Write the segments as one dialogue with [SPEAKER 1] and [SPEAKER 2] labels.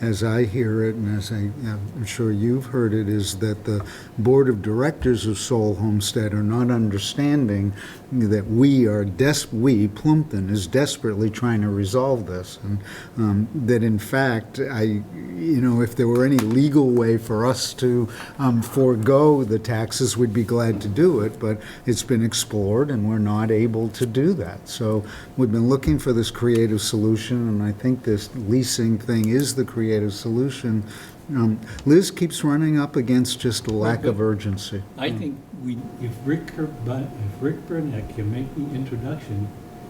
[SPEAKER 1] as I hear it, and as I, I'm sure you've heard it, is that the Board of Directors of Soul Homestead are not understanding that we are des, we, Plumpton, is desperately trying to resolve this. And um, that in fact, I, you know, if there were any legal way for us to um, forego the taxes, we'd be glad to do it, but it's been explored and we're not able to do that. So we've been looking for this creative solution, and I think this leasing thing is the creative solution. Um, Liz keeps running up against just a lack of urgency.
[SPEAKER 2] I think we, if Rick, Ker- Bu- if Rick Burnett can make the introduction,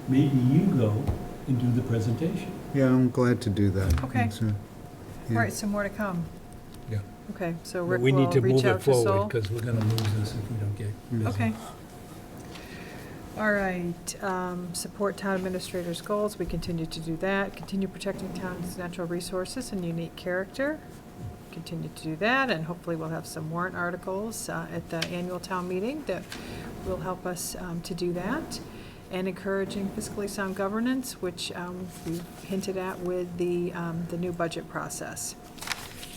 [SPEAKER 2] maybe you go and do the presentation.
[SPEAKER 1] Yeah, I'm glad to do that.
[SPEAKER 3] Okay.
[SPEAKER 1] It's, uh,
[SPEAKER 3] All
[SPEAKER 1] yeah.
[SPEAKER 3] right, so more to come.
[SPEAKER 2] Yeah.
[SPEAKER 3] Okay, so
[SPEAKER 2] But
[SPEAKER 3] Rick
[SPEAKER 2] we
[SPEAKER 3] will
[SPEAKER 2] need to
[SPEAKER 3] reach
[SPEAKER 2] move
[SPEAKER 3] out
[SPEAKER 2] it
[SPEAKER 3] to
[SPEAKER 2] forward
[SPEAKER 3] Sol.
[SPEAKER 2] because we're going to lose this if we don't get busy.
[SPEAKER 3] Okay. All right, um, support town administrators' goals, we continue to do that. Continue protecting town's natural resources and unique character. Continue to do that, and hopefully we'll have some warrant articles uh, at the annual town meeting that will help us um, to do that. And encouraging fiscally sound governance, which um, we hinted at with the, um, the new budget process.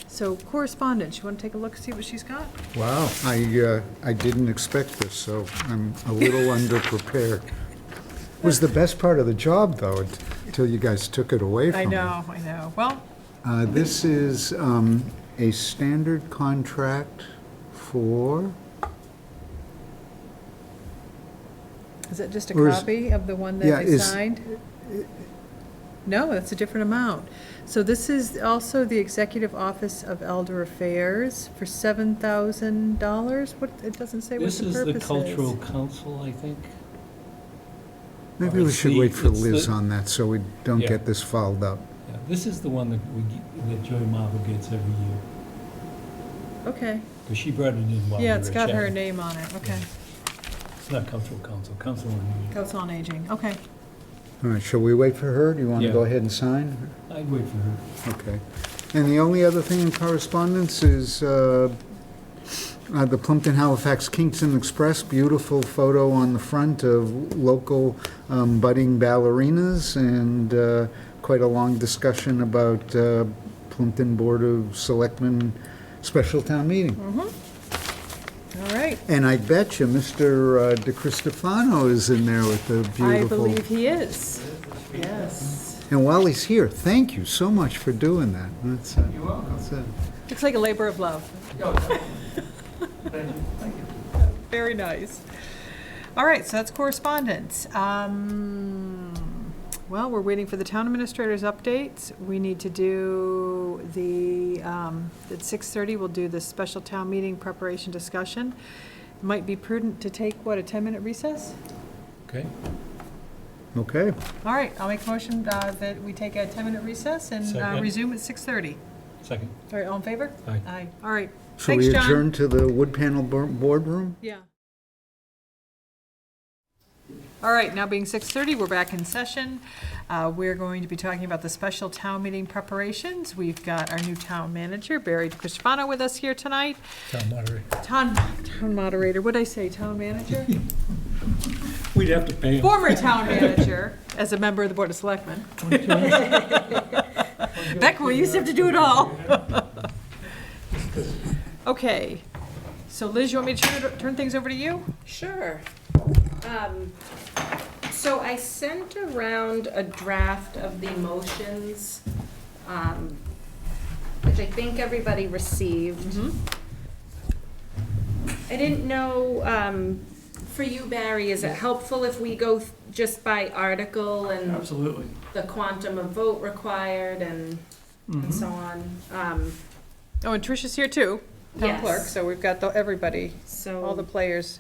[SPEAKER 3] So correspondence, you want to take a look, see what she's got?
[SPEAKER 1] Wow, I, uh, I didn't expect this, so I'm a little underprepared. Was the best part of the job, though, until you guys took it away from
[SPEAKER 3] I
[SPEAKER 1] me.
[SPEAKER 3] know, I know. Well,
[SPEAKER 1] Uh, This is um, a standard contract for,
[SPEAKER 3] Is it just a
[SPEAKER 1] Or is-
[SPEAKER 3] copy of the one
[SPEAKER 1] Yeah,
[SPEAKER 3] that they
[SPEAKER 1] is-
[SPEAKER 3] signed? No, that's a different amount. So this is also the Executive Office of Elder Affairs for seven thousand dollars? What, it doesn't say what
[SPEAKER 2] This
[SPEAKER 3] the
[SPEAKER 2] is the
[SPEAKER 3] purpose
[SPEAKER 2] cultural
[SPEAKER 3] is.
[SPEAKER 2] council, I think.
[SPEAKER 1] maybe we
[SPEAKER 2] It's
[SPEAKER 1] should
[SPEAKER 2] the-
[SPEAKER 1] wait for
[SPEAKER 2] it's the-
[SPEAKER 1] Liz on that, so we don't
[SPEAKER 2] Yeah.
[SPEAKER 1] get this fouled up.
[SPEAKER 2] Yeah, This is the one that we, ge- that Joy Marble gets every year,
[SPEAKER 3] Okay,
[SPEAKER 2] because she brought it in while we were
[SPEAKER 3] yeah, it's got her
[SPEAKER 2] chatting.
[SPEAKER 3] name on it, okay.
[SPEAKER 2] It's not cultural council, council on aging.
[SPEAKER 3] Council on Aging, okay.
[SPEAKER 1] All right, shall we wait for her? Do you want to
[SPEAKER 2] Yeah.
[SPEAKER 1] go ahead and sign?
[SPEAKER 2] I'd wait for her.
[SPEAKER 1] Okay. And the only other thing in correspondence is uh, uh, the Plimpton Halifax Kingston Express, beautiful photo on the front of local um, budding ballerinas and uh, quite a long discussion about uh, Plimpton Board of Selectmen special town meeting.
[SPEAKER 3] All right,
[SPEAKER 1] And I bet you Mr. uh, De Cristofano is in there with the
[SPEAKER 3] I
[SPEAKER 1] beautiful.
[SPEAKER 3] believe he is. Yes.
[SPEAKER 1] And while he's here, thank you so much for doing that. That's, uh,
[SPEAKER 4] You're welcome.
[SPEAKER 1] that's, uh,
[SPEAKER 3] Looks like a labor of love.
[SPEAKER 4] Yo, Oh, Thank you, thank you.
[SPEAKER 3] Very nice. All right, so that's correspondence. Um, Well, we're waiting for the town administrators' updates. We need to do the, um, at 6:30, we'll do the special town meeting preparation discussion. Might be prudent to take, what, a 10-minute recess?
[SPEAKER 2] Okay?
[SPEAKER 1] okay.
[SPEAKER 3] All right, I'll make a motion uh, that we take a 10-minute recess and uh,
[SPEAKER 2] Second.
[SPEAKER 3] resume at 6:30.
[SPEAKER 2] Second.
[SPEAKER 3] All right, all in favor?
[SPEAKER 2] Aye.
[SPEAKER 3] Aye. All right.
[SPEAKER 1] Shall we
[SPEAKER 3] Thanks, John.
[SPEAKER 1] adjourn to the wood panel bor- boardroom?
[SPEAKER 3] Yeah. All right, now being 6:30, we're back in session. Uh, We're going to be talking about the special town meeting preparations. We've got our new town manager, Barry Cristofano, with us here tonight.
[SPEAKER 2] Town moderator.
[SPEAKER 3] Town, town moderator, what'd I say, town manager?
[SPEAKER 2] We'd have to pay him.
[SPEAKER 3] Former town manager, as a member of the Board of Selectmen. Beck, we used to have to do it all. Okay, so Liz, you want me to turn- turn things over to you?
[SPEAKER 5] Sure. Um, So I sent around a draft of the motions, um, which I think everybody received.
[SPEAKER 3] Mm-hmm.
[SPEAKER 5] I didn't know, um, for you, Barry, is it helpful if we go th- just by article and
[SPEAKER 4] Absolutely.
[SPEAKER 5] the quantum of vote required and
[SPEAKER 2] Mm-hmm.
[SPEAKER 3] Mm-hmm.
[SPEAKER 5] and so on? Um,
[SPEAKER 3] Oh, and Tricia's here too, town
[SPEAKER 5] Yes. Oh.
[SPEAKER 3] clerk, so we've got the, everybody,
[SPEAKER 5] So.
[SPEAKER 3] all the players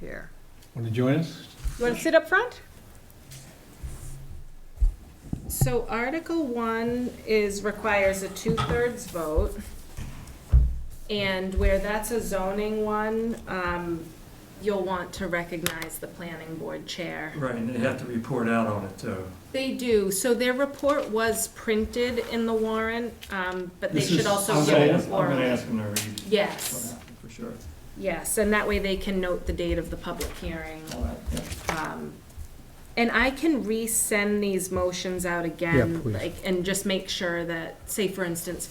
[SPEAKER 3] here.
[SPEAKER 2] Want to join us?
[SPEAKER 3] You wanna sit up front?
[SPEAKER 5] So Article One is, requires a two-thirds vote. And where that's a zoning one, um, you'll want to recognize the planning board chair.
[SPEAKER 4] Right, and they have to report out on it, uh, too.
[SPEAKER 5] They do, so their report was printed in the warrant, um, but they
[SPEAKER 2] This
[SPEAKER 5] should
[SPEAKER 2] is-
[SPEAKER 5] also
[SPEAKER 4] I'm
[SPEAKER 5] give
[SPEAKER 4] gonna
[SPEAKER 5] it
[SPEAKER 4] ask- I'm gonna
[SPEAKER 5] oral.
[SPEAKER 4] ask them to read.
[SPEAKER 5] Yes,
[SPEAKER 4] For sure.
[SPEAKER 5] yes, and that way they can note the date of the public hearing.
[SPEAKER 4] All right, yeah.
[SPEAKER 5] Um, And I can resend these motions out again,
[SPEAKER 1] please.
[SPEAKER 5] like, and just make sure that, say for instance,